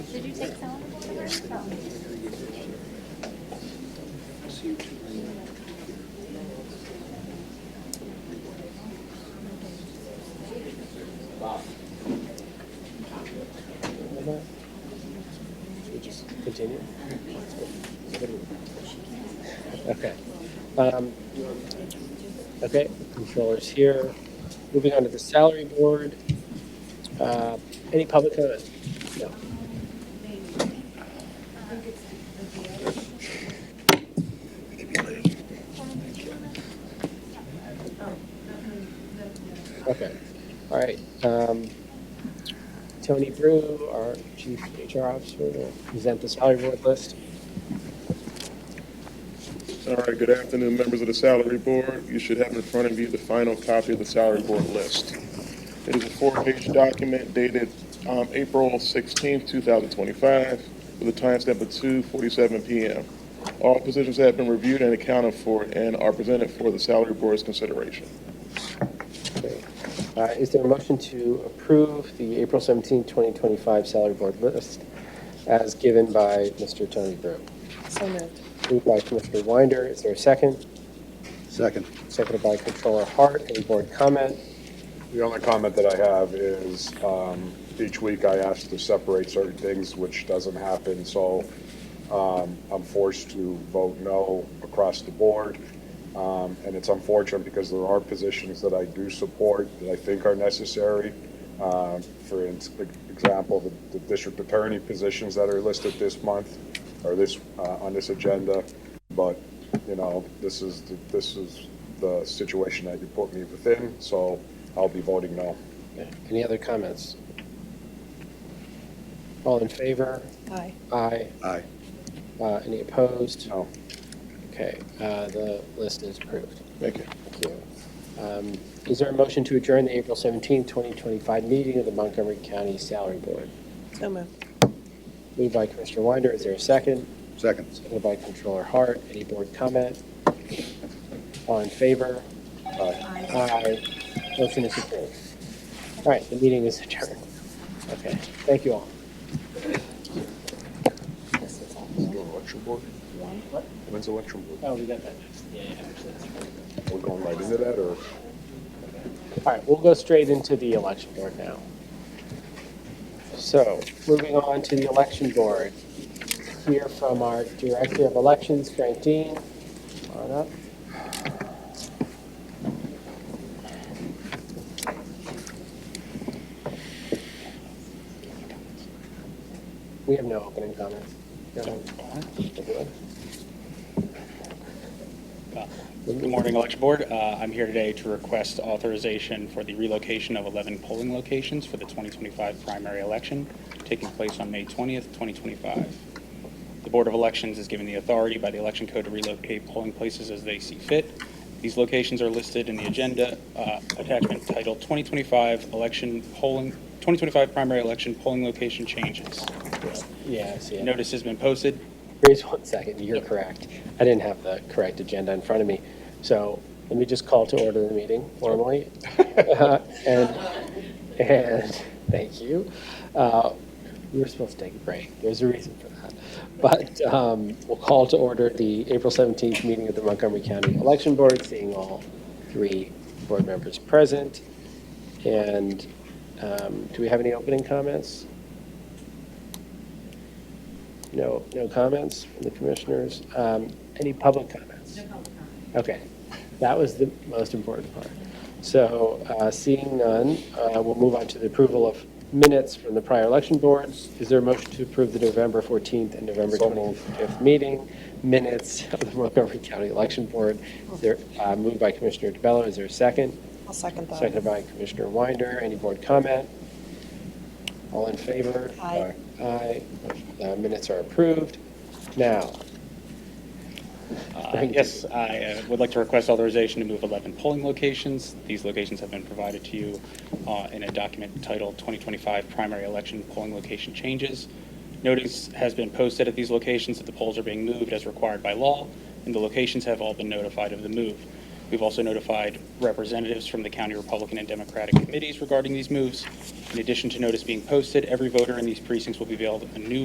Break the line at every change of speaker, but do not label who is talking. Did you take some of them? No.
Continue? Okay. Um, Okay, controller's here. Moving on to the salary board. Uh, Any public comment? No. Okay, all right. Um, Tony Brew, our chief HR officer, will present the salary board list.
All right, good afternoon, members of the salary board. You should have in front of you the final copy of the salary board list. It is a four-page document dated um, April 16, 2025, with a timestamp of 2:47 PM. All positions have been reviewed and accounted for and are presented for the salary board's consideration.
Okay. Uh, Is there a motion to approve the April 17, 2025 salary board list as given by Mr. Tony Brew?
So moved.
Moved by Commissioner Winder, is there a second?
Second.
Seconded by Controller Hart, any board comment?
The only comment that I have is, um, each week I ask to separate certain things, which doesn't happen, so, um, I'm forced to vote no across the board. Um, and it's unfortunate because there are positions that I do support that I think are necessary. Um for ins- example, the, the district attorney positions that are listed this month or this, uh, on this agenda. But, you know, this is, the- this is the situation that you put me within, so I'll be voting no.
Any other comments? All in favor?
Aye.
Aye.
Aye.
Uh, Any opposed?
No.
Okay, uh, the list is approved.
Thank you.
Thank you. Um, Is there a motion to adjourn the April 17, 2025 meeting of the Montgomery County Salary Board?
So moved.
Moved by Commissioner Winder, is there a second?
Second.
Seconded by Controller Hart, any board comment? All in favor? Aye. Motion is approved. All right, the meeting is adjourned. Okay, thank you all.
When's the election?
Oh, we got that next. Yeah, yeah,
We're going right into that, or?
All right, we'll go straight into the election board now. So, moving on to the election board. Here from our Director of Elections, Frank Dean. Come On up. We have no opening comments. No.
Good morning, Election Board. Uh, I'm here today to request authorization for the relocation of 11 polling locations for the 2025 primary election taking place on May 20th, 2025. The Board of Elections is given the authority by the Election Code to relocate polling places as they see fit. These locations are listed in the agenda uh, attachment titled 2025 Election Polling, 2025 Primary Election Polling Location Changes.
Yeah, I see it.
Notice has been posted.
Grace, one second, you're correct. I didn't have the correct agenda in front of me. So let me just call to order the meeting formally. Uh, And, and, thank you. Uh, We were supposed to take a break, there's a reason for that. But um, we'll call to order the April 17th meeting of the Montgomery County Election Board, seeing all three board members present. And um, do we have any opening comments? No, no comments from the commissioners. Um, Any public comments? No public comments. Okay, that was the most important part. So uh, seeing none, uh, we'll move on to the approval of minutes from the prior election boards. Is there a motion to approve the November 14th and November
So moved.
25th meeting minutes of the Montgomery County Election Board? Is there, uh, moved by Commissioner DeBello, is there a second?
I'll second that.
Seconded by Commissioner Winder. Any board comment? All in favor?
Aye.
Aye. Uh, Minutes are approved. Now,
Uh,
Thank you.
Yes, I uh, would like to request authorization to move 11 polling locations. These locations have been provided to you uh, in a document titled 2025 Primary Election Polling Location Changes. Notice has been posted at these locations that the polls are being moved as required by law, and the locations have all been notified of the move. We've also notified representatives from the county Republican and Democratic committees regarding these moves. In addition to notice being posted, every voter in these precincts will be mailed a new